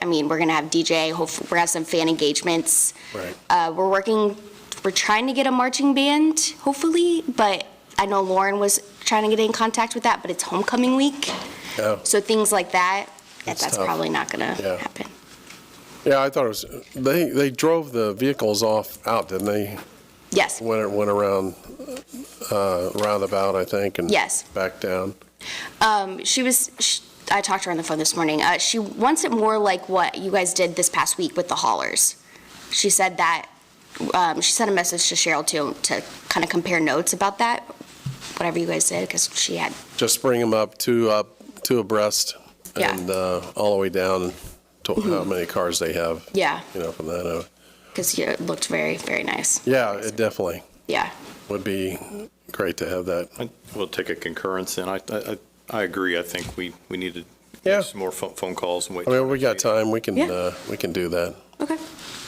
I mean, we're gonna have DJ, hopefully, we're gonna have some fan engagements. Right. Uh, we're working, we're trying to get a marching band, hopefully, but I know Lauren was trying to get in contact with that, but it's homecoming week, Oh, so things like that, that- That's that's tough. probably not gonna Yeah. happen. yeah, I thought it was, they, they drove the vehicles off out, didn't they? Yes, When it went around, uh, roundabout, I think, and yes. back down. Um, she was, sh I talked to her on the phone this morning. Uh, she wants it more like what you guys did this past week with the haulers. She said that, um, she sent a message to Cheryl too, to kind of compare notes about that, whatever you guys did, because she had, Just bring them up, two up, two abreast, Yeah. Mm-hmm. and uh, all the way down to how many cars they have, yeah, you know, from that. uh, because it looked very, very nice. Yeah, it definitely Yeah. would be great to have that. I- We'll take a concurrence, and I, I, I agree. I think we, we need to Yeah. make some more phone phone calls and wait. I mean, we got time, we can, Yeah. uh, we can do that. Okay.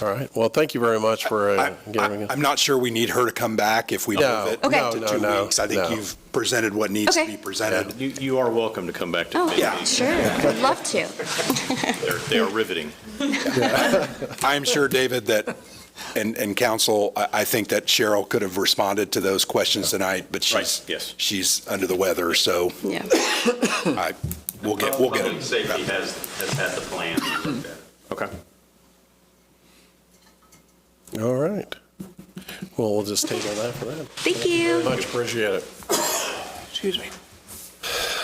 All right, well, thank you very much for uh, I- giving I- us. I'm not sure we need her to come back if we No, move it Okay. to no, two no, weeks. I no. think you've presented what needs to Okay. be presented. You, you are welcome to come back to Oh, committee. Yeah. sure. I'd love to. They're- They are riveting. I'm sure, David, that, and, and council, I, I think that Cheryl could have responded to those questions tonight, but she's, Right, yes. she's under the weather, so Yeah. I, we'll get, we'll get Oh, Public it. safety has, has had the plan looked at. Okay. All right. Well, we'll just table that for that. Thank you. Much appreciate it. Excuse me.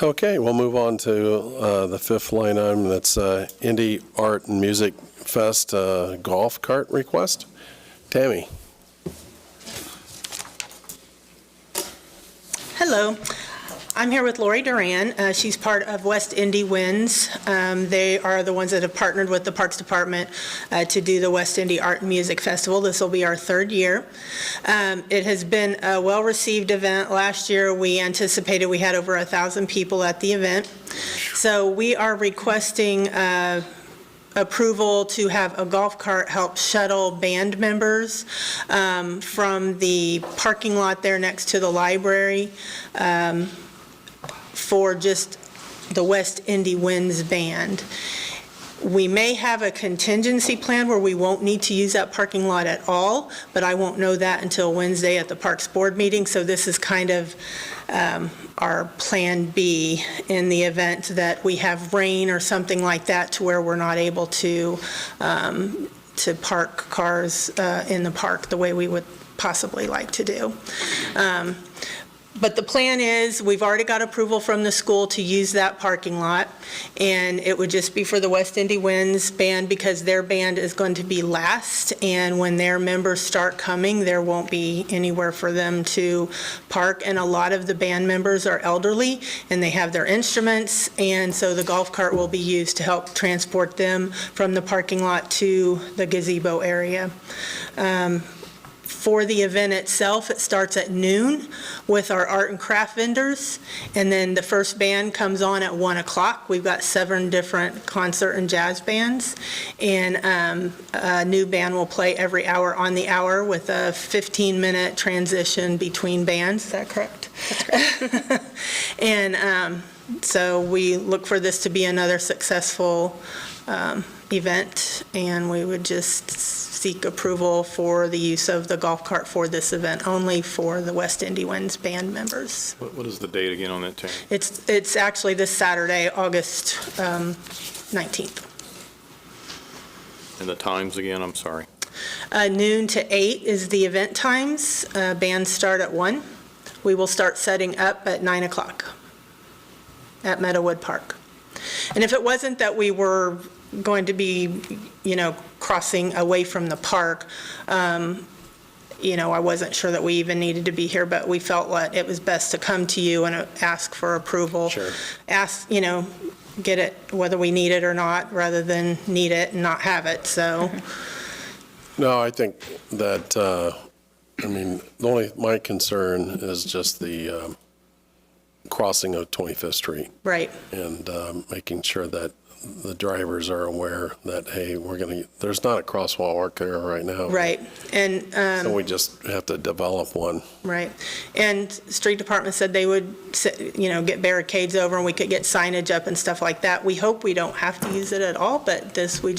Okay, we'll move on to uh, the fifth line item, that's uh, Indie Art and Music Fest uh, Golf Cart Request. Tammy? Hello. I'm here with Lori Duran. Uh, She's part of West Indy Winds. Um, They are the ones that have partnered with the Parks Department uh, to do the West Indy Art and Music Festival. This will be our third year. Um, It has been a well-received event. Last year, we anticipated we had over 1,000 people at the event. So we are requesting uh, approval to have a golf cart help shuttle band members um, from the parking lot there next to the library um, for just the West Indy Winds Band. We may have a contingency plan where we won't need to use that parking lot at all, but I won't know that until Wednesday at the Parks Board meeting, so this is kind of um, our Plan B in the event that we have rain or something like that to where we're not able to, um, to park cars uh, in the park the way we would possibly like to do. Um, But the plan is, we've already got approval from the school to use that parking lot, and it would just be for the West Indy Winds Band because their band is going to be last, and when their members start coming, there won't be anywhere for them to park, and a lot of the band members are elderly, and they have their instruments, and so the golf cart will be used to help transport them from the parking lot to the gazebo area. Um, for the event itself, it starts at noon with our art and craft vendors, and then the first band comes on at 1 o'clock. We've got seven different concert and jazz bands, and um, a new band will play every hour on the hour with a 15-minute transition between bands. Is that correct? And um, so we look for this to be another successful um, event, and we would just seek approval for the use of the golf cart for this event, only for the West Indy Winds band members. What, what is the date again on that, Terry? It's, it's actually this Saturday, August um, 19th, And the times again? I'm sorry. Uh, noon to eight is the event times. Uh, Bands start at one. We will start setting up at 9 o'clock at Meadowood Park. And if it wasn't that we were going to be, you know, crossing away from the park, um, you know, I wasn't sure that we even needed to be here, but we felt like it was best to come to you and uh, ask for approval. Sure. Ask, you know, get it whether we need it or not, rather than need it and not have it, so. No, I think that, uh, I mean, the only, my concern is just the um, crossing of 25th Street Right, and um, making sure that the drivers are aware that, hey, we're going to, there's not a crosswalk there right now. right. And, So um, we just have to develop one. right. And street department said they would, se- you know, get barricades over and we could get signage up and stuff like that. We hope we don't have to use it at all, but this, we